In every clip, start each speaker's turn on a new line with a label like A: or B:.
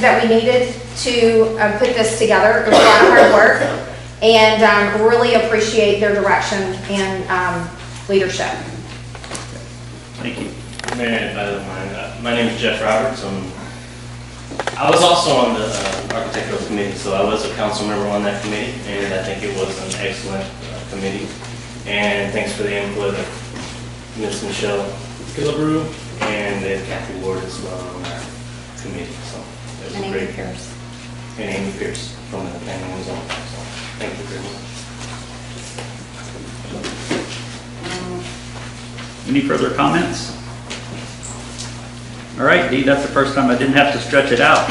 A: that we needed to uh, put this together. It was a lot of hard work, and um, really appreciate their direction and um, leadership.
B: Thank you. Mayor, if I don't mind, uh, my name is Jeff Roberts. Um, I was also on the uh, architectural committee, so I was a council member on that committee, and I think it was an excellent uh, committee. And thanks for the input of Ms. Michelle Gillabrew and then Kathy Ward as well on our committee, so. it was a
A: And Amy
B: great-
A: Pierce.
B: And Amy Pierce from the planning and zoning, so thank you very much.
C: Any further comments? All right, Dee, that's the first time I didn't have to stretch it out.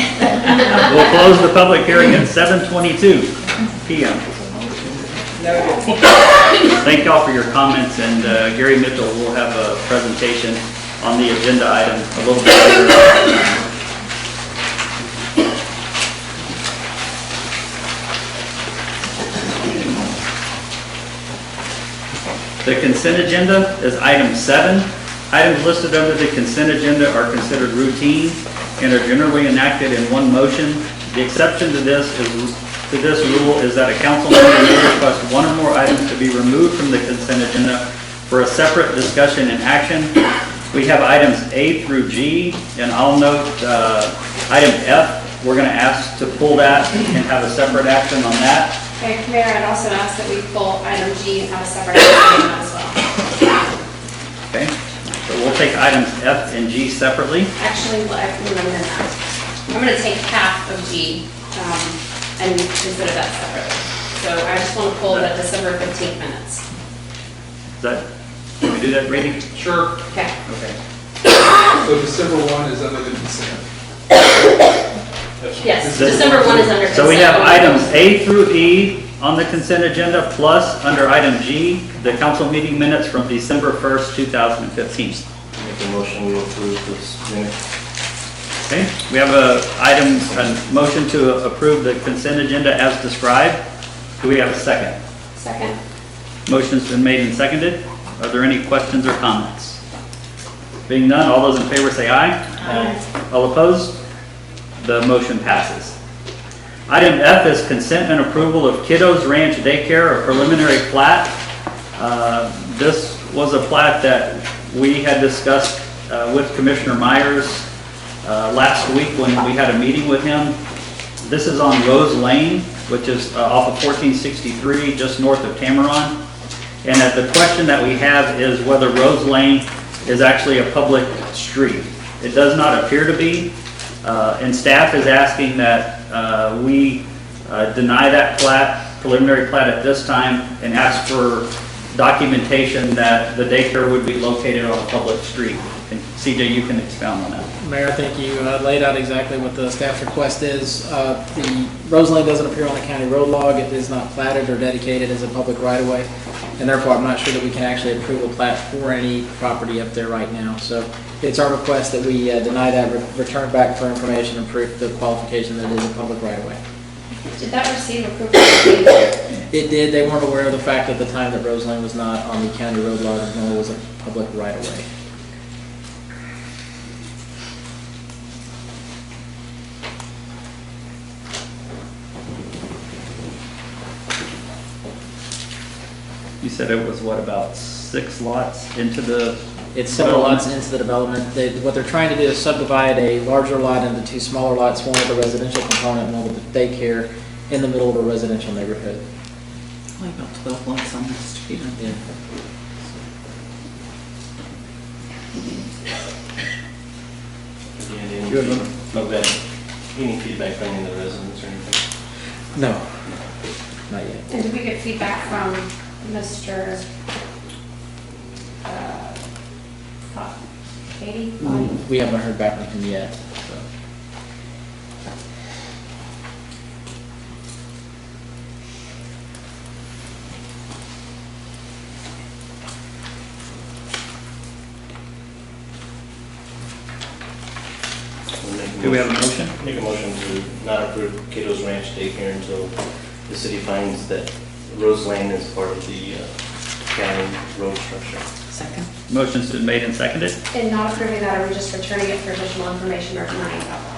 C: We'll close the public hearing at 7:22 PM. Thank y'all for your comments, and uh, Gary Mitchell will have a presentation on the agenda item a little bit later. The consent agenda is item seven. Items listed under the consent agenda are considered routine and are generally enacted in one motion. The exception to this is, to this rule is that a council member may request one or more items to be removed from the consent agenda for a separate discussion and action. We have items A through G, and I'll note, uh, item F, we're gonna ask to pull that and have a separate action on that.
D: Okay, Mayor, I'd also ask that we pull item G and have a separate item as well.
C: Okay, so we'll take items F and G separately.
D: Actually, well, I can amend that. I'm gonna take half of G um, and consider that separate. So I just want to pull the December 15th minutes.
C: Is that, can we do that, Brady?
E: Sure.
D: Okay.
C: Okay.
E: So December 1 is under the consent.
D: Yes, December 1 is under consent.
C: So we have items A through E on the consent agenda, plus under item G, the council meeting minutes from December 1st, 2015.
B: Make a motion to approve this minute.
C: Okay, we have a item, a motion to approve the consent agenda as described. Do we have a second?
D: Second.
C: Motion's been made and seconded. Are there any questions or comments? Being none, all those in favor say aye. Aye. All opposed? The motion passes. Item F is consent and approval of Kiddos Ranch Daycare, a preliminary plat. Uh, This was a plat that we had discussed uh, with Commissioner Myers uh, last week when we had a meeting with him. This is on Rose Lane, which is uh, off of 1463, just north of Tamaron. And that the question that we have is whether Rose Lane is actually a public street. It does not appear to be, uh, and staff is asking that uh, we uh, deny that plat, preliminary plat at this time, and ask for documentation that the daycare would be located on a public street. And CJ, you can expound on that.
F: Mayor, I think you uh, laid out exactly what the staff's request is. Uh, The Rose Lane doesn't appear on the county road log, it is not platted or dedicated as a public right-of-way, and therefore I'm not sure that we can actually approve a plat for any property up there right now. So it's our request that we uh, deny that, re- return back for information and proof the qualification that it is a public right-of-way.
D: Did that receive approval?
F: It did, they weren't aware of the fact at the time that Rose Lane was not on the county road log, nor was a public right-of-way.
C: You said it was, what, about six lots into the,
F: It's several lots into the development. They, what they're trying to do is subdivide a larger lot into two smaller lots, one with a residential component, one with a daycare, in the middle of a residential neighborhood.
G: Only about 12 lots on this street. aren't
F: Yeah.
B: And any
F: Good one.
B: feedback- no bad. Any feedback from any of the residents or anything?
F: No, not yet.
D: And did we get feedback from Mr. uh, Scott? Katie? Bonnie?
F: We haven't heard back from him yet, so.
B: We'll make a
C: do we have a
B: motion-
C: motion?
B: Make a motion to not approve Cato's Ranch daycare until the city finds that Rose Lane is part of the uh, county road structure.
G: they? Second.
C: Motion's been made and seconded.
D: And not approving that, are we just returning it for additional information or denying that?